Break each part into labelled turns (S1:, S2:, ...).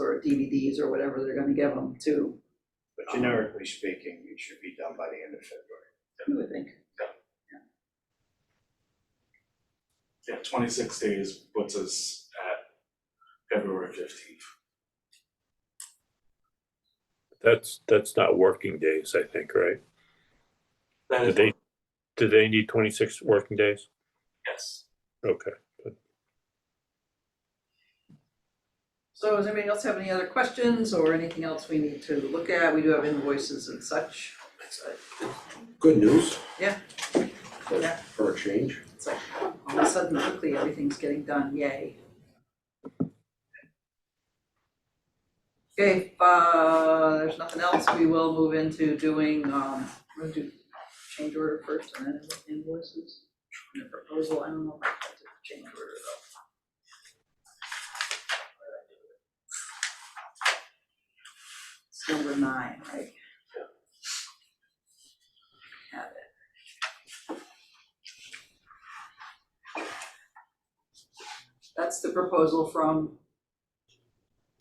S1: or DVDs or whatever they're gonna give them too,
S2: But generically speaking, it should be done by the end of February.
S1: I would think.
S3: Yeah, twenty-six days puts us at February fifteenth.
S4: That's, that's not working days, I think, right?
S3: That
S4: Do
S3: is,
S4: they, do they need twenty-six working days?
S3: yes.
S4: Okay.
S1: So does anybody else have any other questions or anything else we need to look at? We do have invoices and such. So
S5: Good news.
S1: Yeah.
S5: For,
S1: Yeah.
S5: for a change.
S1: It's like, all of a sudden, quickly, everything's getting done, yay. Okay, if, uh, there's nothing else, we will move into doing, um, we're gonna do change order first and then invoices. And the proposal, I don't know if I have to change order though. It's number nine, right? Have it. That's the proposal from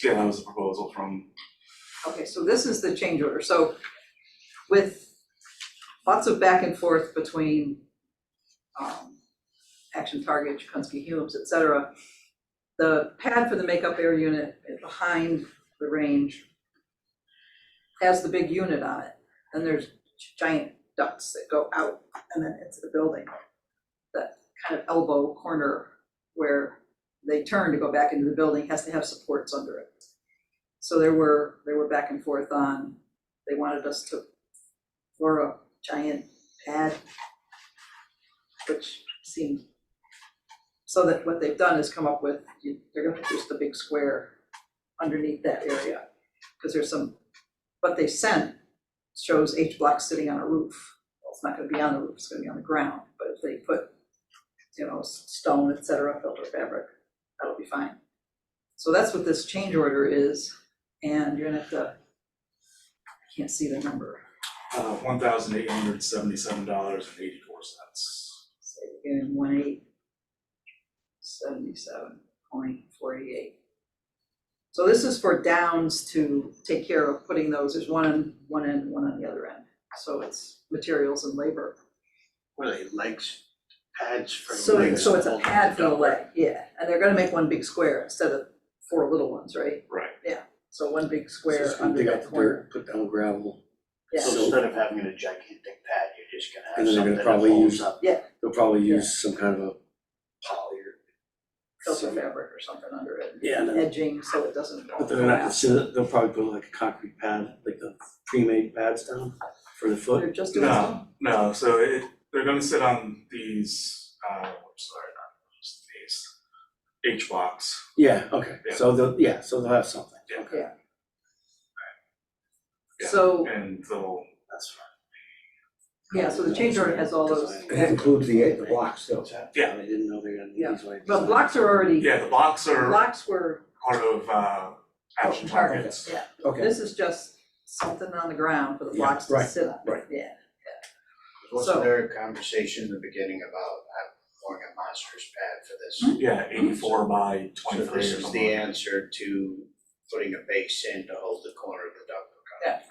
S3: Yeah, that was a proposal from,
S1: Okay, so this is the change order, so with lots of back and forth between um Action Target, Chikunsky Humes, et cetera. The pad for the makeup air unit is behind the range has the big unit on it, and there's giant ducts that go out and then into the building. That kind of elbow corner where they turn to go back into the building has to have supports under it. So there were, they were back and forth on, they wanted us to floor a giant pad, which seemed, so that what they've done is come up with, you- they're gonna just a big square underneath that area, because there's some, what they sent shows H block sitting on a roof. Well, it's not gonna be on the roof, it's gonna be on the ground, but if they put, you know, s- stone, et cetera, filter fabric, that'll be fine. So that's what this change order is, and you're gonna have to, I can't see the number,
S3: uh, one thousand eight hundred seventy-seven dollars and eighty-four cents.
S1: say again, one eight seventy-seven point forty-eight. So this is for downs to take care of putting those, there's one on one end, one on the other end, so it's materials and labor.
S2: Were they legs, pads for the
S1: So,
S2: legs?
S1: so it's a
S2: holding
S1: pad for the
S2: dog?
S1: leg, yeah, and they're gonna make one big square instead of four little ones, right?
S3: Right.
S1: Yeah, so one big
S5: So
S1: square
S5: scoop
S1: under
S5: dig
S1: that
S5: out the
S1: corner,
S5: dirt, Put down gravel.
S1: yeah.
S2: So instead of having a gigantic pad, you're just gonna
S5: And
S2: have
S5: then they're
S2: something
S5: gonna
S2: that
S5: probably
S2: holds
S5: use-
S2: up.
S5: They'll probably
S1: Yeah.
S5: use some kind of a poly or.
S1: filter
S5: some-
S1: fabric or something under it.
S5: Yeah, no.
S1: Edging so it doesn't all
S5: But they're not,
S1: collapse.
S5: so they'll probably put like a concrete pad, like the pre-made pads down for the foot.
S1: They're just doing
S3: No,
S1: some,
S3: no, so it, they're gonna sit on these, uh, I'm sorry, not just these, H blocks.
S5: Yeah, okay, so they'll, yeah, so they'll have something,
S3: Yeah.
S5: okay,
S3: yeah,
S1: so,
S3: And they'll,
S5: that's fine.
S1: yeah, so the change order has all those,
S5: It includes the, the blocks still.
S3: Yeah.
S5: I didn't know they were gonna need
S1: Yeah.
S5: these like.
S1: but blocks are already,
S3: yeah, the blocks are
S1: blocks were
S3: part of, uh, action
S1: oh, part of
S3: targets.
S1: it, yeah.
S5: Okay,
S1: This is just something on the ground for the
S5: Yeah,
S1: blocks to
S5: right,
S1: sit on,
S5: right.
S1: yeah, So-
S2: Wasn't there a conversation in the beginning about uh, pouring a monster's pad for this?
S1: Hmm?
S3: Yeah, eighty-four by
S2: So
S3: twenty-three or
S2: this is the
S3: something.
S2: answer to putting a base in to hold the corner of the duct.
S1: Yeah.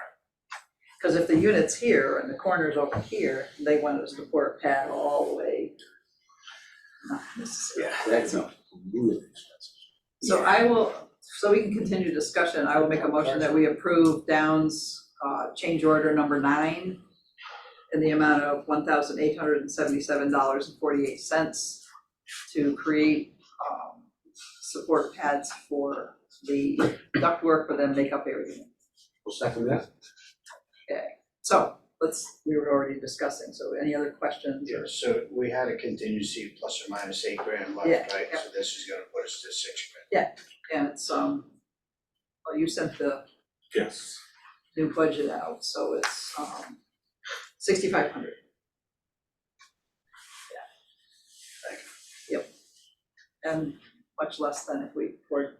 S1: cause if the unit's here and the corner's over here, they wanted us to pour a pad all the way. Not necessary.
S5: yeah, that's not really expensive.
S1: So I will, so we can continue discussion, I will make a motion that we approve Downs, uh, change order number nine in the amount of one thousand eight hundred and seventy-seven dollars and forty-eight cents to create, um, support pads for the ductwork for them makeup area.
S5: We'll second that.
S1: So, let's, we were already discussing, so any other questions?
S2: Yeah, so we had a contingency plus or minus eight grand left,
S1: Yeah,
S2: right?
S1: yeah.
S2: So this is gonna put us to six grand.
S1: And it's, um, well, you sent the
S3: Yes.
S1: new budget out, so it's, um, sixty-five hundred. Yeah. Yep. And much less than if we poured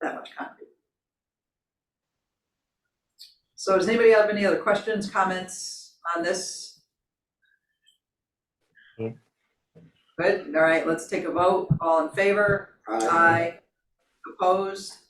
S1: that much concrete. So does anybody have any other questions, comments on this?
S4: No.
S1: Good, all right, let's take a vote, all in favor? Aye. Opposed?